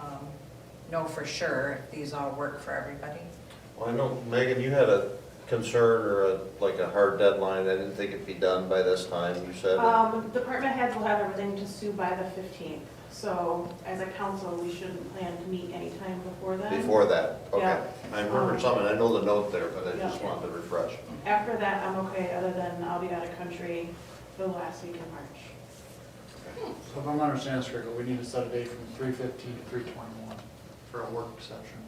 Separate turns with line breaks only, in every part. um, know for sure if these all work for everybody.
Well, I know, Megan, you had a concern or a, like a hard deadline, I didn't think it'd be done by this time, you said.
Um, department heads will have everything to Sue by the fifteenth, so as a council, we shouldn't plan to meet anytime before then.
Before that, okay.
Yeah.
I remember something, I know the note there, but I just
Yeah.
wanted to refresh.
After that, I'm okay, other than I'll be out of country the last week in March.
So if I'm understanding this correctly, we need to set a date from three fifteen to three twenty-one for a work session.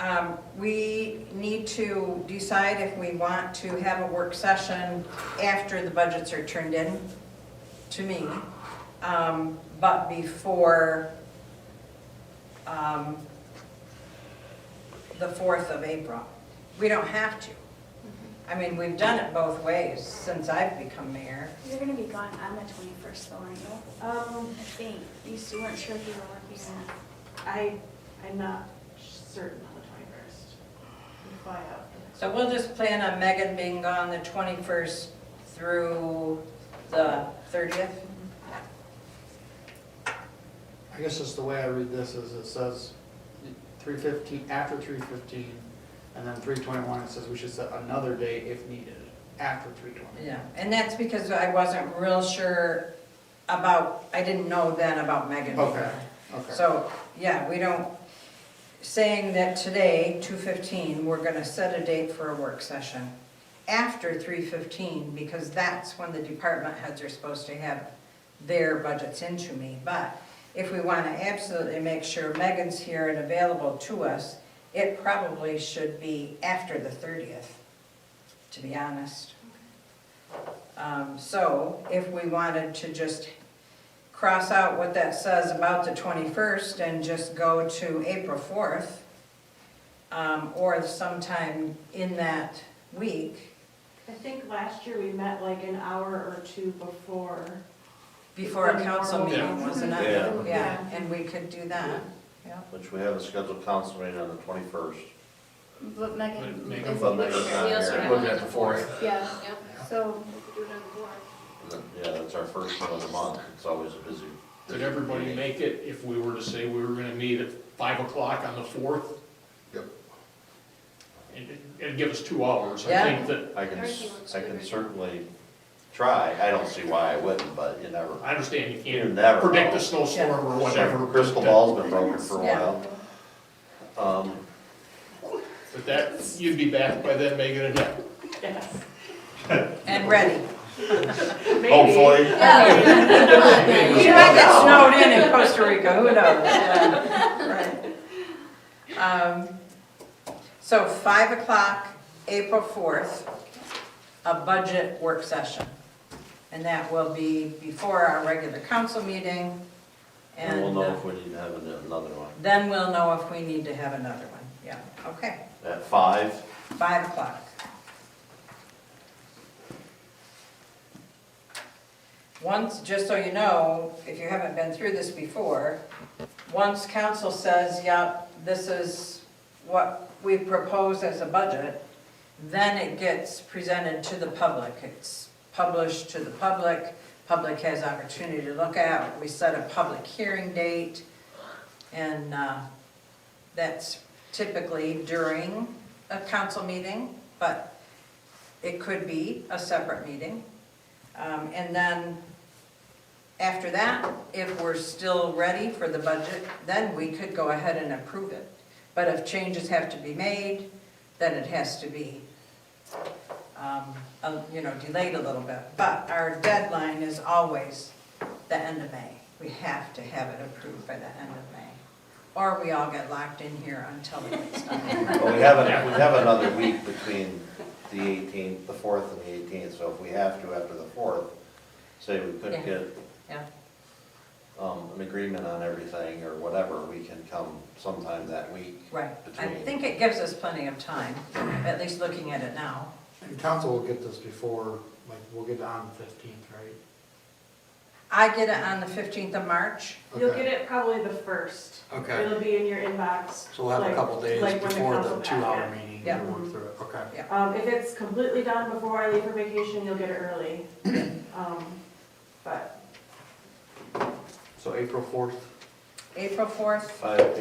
Um, We need to decide if we want to have a work session after the budgets are turned in, to me, um, but before um, the 4th of April. We don't have to. I mean, we've done it both ways since I've become mayor.
You're gonna be gone on the twenty-first though, aren't you?
Um,
I think, you still weren't sure if you were working on it.
I, I'm not certain on the twenty-first. We fly out. the next-
So we'll just plan on Megan being gone the 21st through the 30th.
I guess just the way I read this is it says three fifteen, after three fifteen, and then three twenty-one, it says we should set another date if needed, after three twenty.
Yeah, and that's because I wasn't real sure about, I didn't know then about Megan.
Okay, okay.
So, yeah, we don't, saying that today, two fifteen, we're gonna set a date for a work session after three fifteen, because that's when the department heads are supposed to have their budgets into me. But if we wanna absolutely make sure Megan's here and available to us, it probably should be after the thirtieth, to be honest. Um, so if we wanted to just cross out what that says about the 21st and just go to April 4th, um, or sometime in that week,
I think last year we met like an hour or two before.
before a council meeting,
Yeah.
wasn't
Yeah.
it? Yeah, and we could do that, yeah.
Which we have a scheduled council meeting on the twenty-first.
But Megan.
Megan-
if-
But Megan's not
we also
here.
have
We'll
it
do
on
it before.
Yeah,
Yep.
so we could do it on the board.
Yeah, that's our first one of the month, it's always a busy.
Did everybody make it if we were to say we were gonna meet at five o'clock on the fourth?
Yep.
And, and give us two hours, I
Yeah.
think that,
I can, s- I can certainly try, I don't see why I wouldn't, but you never.
I understand you
You never
can't predict
know.
a snowstorm or
Sure,
whatever.
Crystal
but-
ball's been broken for a
Yeah.
while. Um,
But that, you'd be back by then, Megan, and yeah,
Yes.
And ready.
Maybe.
hopefully.
We might get snowed in in Costa Rica, who knows? Yeah, right. Um, So 5 o'clock, April 4th, a budget work session. And that will be before our regular council meeting.
And we'll
And
know
uh,
if we need to have an- another one.
then we'll know if we need to have another one. Yeah, okay,
At five,
5 o'clock. Once, just so you know, if you haven't been through this before, once council says, yep, this is what we propose as a budget, then it gets presented to the public. It's published to the public, public has opportunity to look at, we set a public hearing date, and uh, that's typically during a council meeting, but it could be a separate meeting. Um, And then after that, if we're still ready for the budget, then we could go ahead and approve it. But if changes have to be made, then it has to be, um, uh, you know, delayed a little bit. But our deadline is always the end of May. We have to have it approved by the end of May. Or we all get locked in here until it gets done.
well, we have, an- we have another week between the eighteenth, the fourth and the eighteenth, so if we have to after the fourth, say we couldn't
Yeah.
get
Yeah,
um, an agreement on everything or whatever, we can come sometime that week.
right. I
Between-
think it gives us plenty of time, at least looking at it now.
And council will get this before, like, we'll get it on the fifteenth, right?
I get it on the 15th of March.
You'll
Okay.
get it probably the first.
Okay.
It'll be in your inbox.
So we'll have a
like-
couple days
like when
before the
council
two-hour
packet.
meeting
Yeah.
to work through it, okay.
Um, if it's completely done before I leave for vacation, you'll get it early. Um, but
So April fourth?
April 4th,
Five